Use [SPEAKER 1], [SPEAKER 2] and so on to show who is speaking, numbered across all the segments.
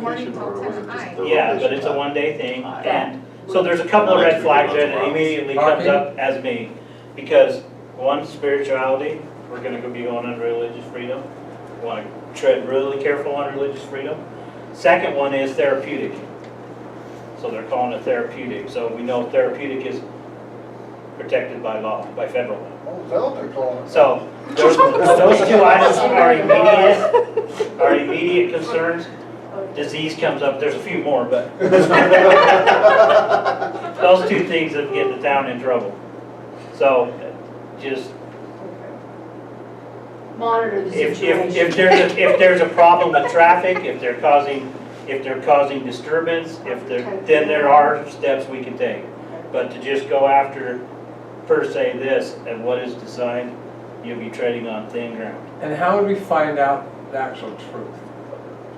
[SPEAKER 1] morning till
[SPEAKER 2] Or was it just
[SPEAKER 1] tonight.
[SPEAKER 2] the
[SPEAKER 3] Yeah, but
[SPEAKER 2] location
[SPEAKER 3] it's a
[SPEAKER 2] time?
[SPEAKER 3] one-day thing,
[SPEAKER 2] Aye.
[SPEAKER 3] and, so there's a couple of red flags there that immediately comes up as me. Because, one, spirituality, we're gonna be going on religious freedom, We wanna tread really careful on religious freedom. Second one is therapeutic. So they're calling it therapeutic, so we know therapeutic is protected by law, by federal law.
[SPEAKER 4] Oh, Zelda calling.
[SPEAKER 3] So, those, those two items are immediate, are immediate concerns. Disease comes up, there's a few more, but those two things that get the town in trouble. So, just,
[SPEAKER 5] Monitor the
[SPEAKER 3] if, if, if
[SPEAKER 5] situation.
[SPEAKER 3] there's, a- if there's a problem with traffic, if they're causing, if they're causing disturbance, if there, then there are steps we can take. But to just go after per se this and what is designed, you'll be treading on thin ground.
[SPEAKER 6] And how would we find out the actual truth?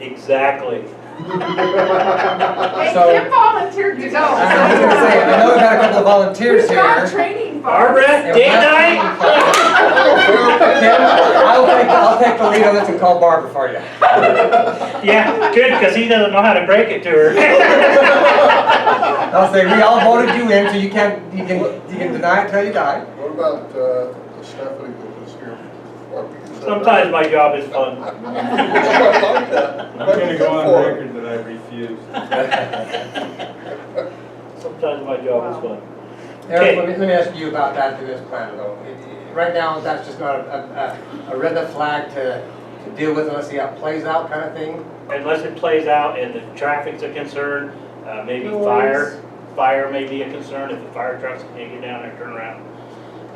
[SPEAKER 3] Exactly.
[SPEAKER 1] Hey,
[SPEAKER 6] So-
[SPEAKER 1] Kim volunteered to go.
[SPEAKER 6] I was gonna say, I know we got a couple of volunteers
[SPEAKER 1] We've got
[SPEAKER 6] here.
[SPEAKER 1] training.
[SPEAKER 3] Barbara,
[SPEAKER 6] If
[SPEAKER 3] date
[SPEAKER 6] that's-
[SPEAKER 3] night?
[SPEAKER 6] Kim, I'll take, I'll take the lead on this and call Barbara for you.
[SPEAKER 3] Yeah, good, because he doesn't know how to break it to her.
[SPEAKER 6] I'll say, we all voted you in, so you can't, you can, you can deny it till you die.
[SPEAKER 4] What about uh, Stephanie that was here? What we said-
[SPEAKER 3] Sometimes my job is fun.
[SPEAKER 4] I'm like that.
[SPEAKER 7] I'm gonna go on record that I refuse.
[SPEAKER 3] Sometimes my job is fun.
[SPEAKER 6] Eric, let me, let me ask you about that through this plan though. It- it- Right now, that's just not a, a, a red flag to, to deal with unless see how it plays out kind of thing.
[SPEAKER 3] Unless it plays out and the traffic's a concern, uh, maybe fire. Fire may be a concern if the fire trucks can't get down there, turn around.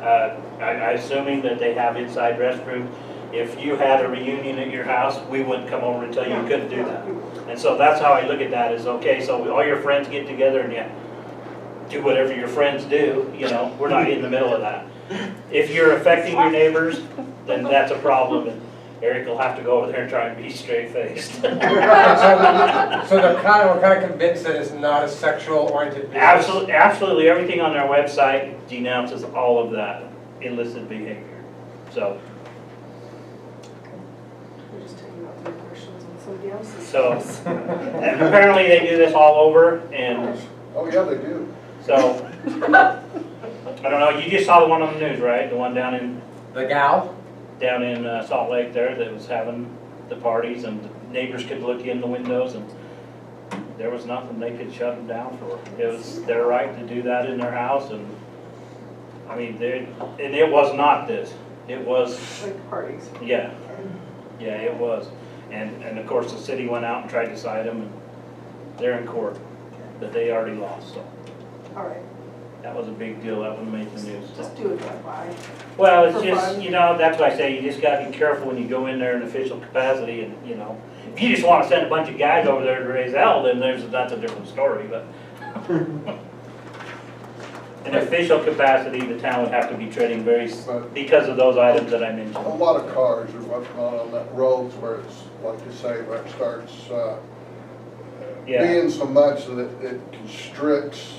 [SPEAKER 3] Uh, I, I assuming that they have inside restrooms. If you had a reunion at your house, we wouldn't come over and tell you you couldn't do that. And so that's how I look at that is, okay, so all your friends get together and you do whatever your friends do, you know, we're not in the middle of that. If you're affecting your neighbors, then that's a problem and Eric will have to go over there and try and be straight faced.
[SPEAKER 6] So so they're kind of, we're kind of convinced that it's not a sexual oriented business.
[SPEAKER 3] Absolutely, absolutely everything on their website denounces all of that illicit behavior. So,
[SPEAKER 5] We're just talking about their questions and somebody else's.
[SPEAKER 3] So- and apparently they do this all over and
[SPEAKER 4] Oh, yeah, they do.
[SPEAKER 3] so, I don't know, you just saw the one on the news, right? The one down in
[SPEAKER 6] The gal?
[SPEAKER 3] down in uh, Salt Lake there that was having the parties and neighbors could look in the windows and there was nothing they could shut them down for. It was their right to do that in their house and, I mean, they, and it was not this. It was,
[SPEAKER 1] Like parties.
[SPEAKER 3] yeah, yeah, it was. And, and of course, the city went out and tried to cite them and they're in court, but they already lost, so
[SPEAKER 1] All right,
[SPEAKER 3] that was a big deal. That one made the news. so.
[SPEAKER 1] just do a drive-by.
[SPEAKER 3] Well, it's
[SPEAKER 1] For
[SPEAKER 3] just,
[SPEAKER 1] fun.
[SPEAKER 3] you know, that's why I say you just gotta be careful when you go in there in official capacity and, you know. If you just wanna send a bunch of guys over there to raise hell, then there's, that's a different story, but. In official capacity, the town would have to be treading very, s-
[SPEAKER 4] But
[SPEAKER 3] because of those items that I
[SPEAKER 4] a
[SPEAKER 3] mentioned.
[SPEAKER 4] lot of cars are what's on on that roads where it's, like you say, where it starts uh,
[SPEAKER 3] Yeah.
[SPEAKER 4] being so much that it constricts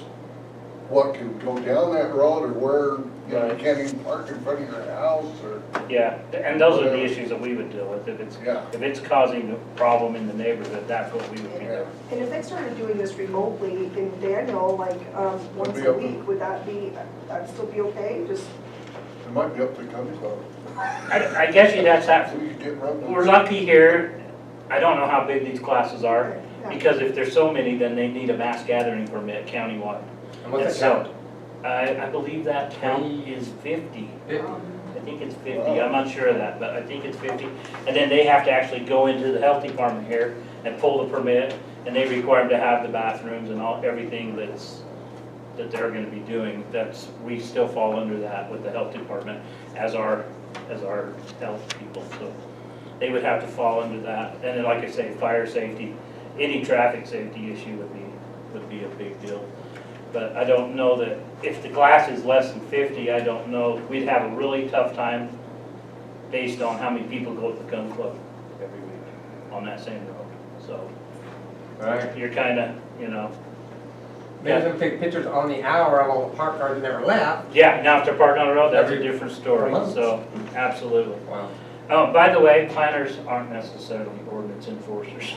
[SPEAKER 4] what can go down that road or where, you know, you
[SPEAKER 3] Right.
[SPEAKER 4] can't even park in front of your house or,
[SPEAKER 3] Yeah, and those are the issues that we would deal with. If it's,
[SPEAKER 4] yeah.
[SPEAKER 3] if it's causing a problem in the neighborhood, that's what we would be doing.
[SPEAKER 5] And if they started doing this remotely in Daniel, like, um, once
[SPEAKER 4] be
[SPEAKER 5] a
[SPEAKER 4] open.
[SPEAKER 5] week, would that be, that'd still be okay? Just,
[SPEAKER 4] It might be up to the county club.
[SPEAKER 3] I, I guess you'd have to have,
[SPEAKER 4] We could get around.
[SPEAKER 3] we're lucky here. I don't know how big these classes are.
[SPEAKER 5] yeah.
[SPEAKER 3] Because if there's so many, then they need a mass gathering permit countywide.
[SPEAKER 6] And what's
[SPEAKER 3] And
[SPEAKER 6] the
[SPEAKER 3] so,
[SPEAKER 6] count?
[SPEAKER 3] I, I believe that count is fifty.
[SPEAKER 6] Fifty?
[SPEAKER 5] Um,
[SPEAKER 3] I think it's fifty, I'm not sure of that, but I think it's fifty. And then they have to actually go into the health department here and pull the permit, and they require them to have the bathrooms and all, everything that's, that they're gonna be doing. That's, we still fall under that with the health department as our, as our health people, so. They would have to fall under that, and then, like I say, fire safety, any traffic safety issue would be, would be a big deal. But I don't know that, if the class is less than fifty, I don't know, we'd have a really tough time based on how many people go to the gun club every week on that same road, so
[SPEAKER 6] Right.
[SPEAKER 3] you're kinda, you know,
[SPEAKER 6] Maybe them take pictures on the hour of all the parked cars that never left.
[SPEAKER 3] yeah, now if they're parked on the road, that's a
[SPEAKER 6] Every-
[SPEAKER 3] different story,
[SPEAKER 6] Months.
[SPEAKER 3] so, absolutely. Um,
[SPEAKER 6] Wow.
[SPEAKER 3] Oh, by the way, planners aren't necessarily ordinance enforcers.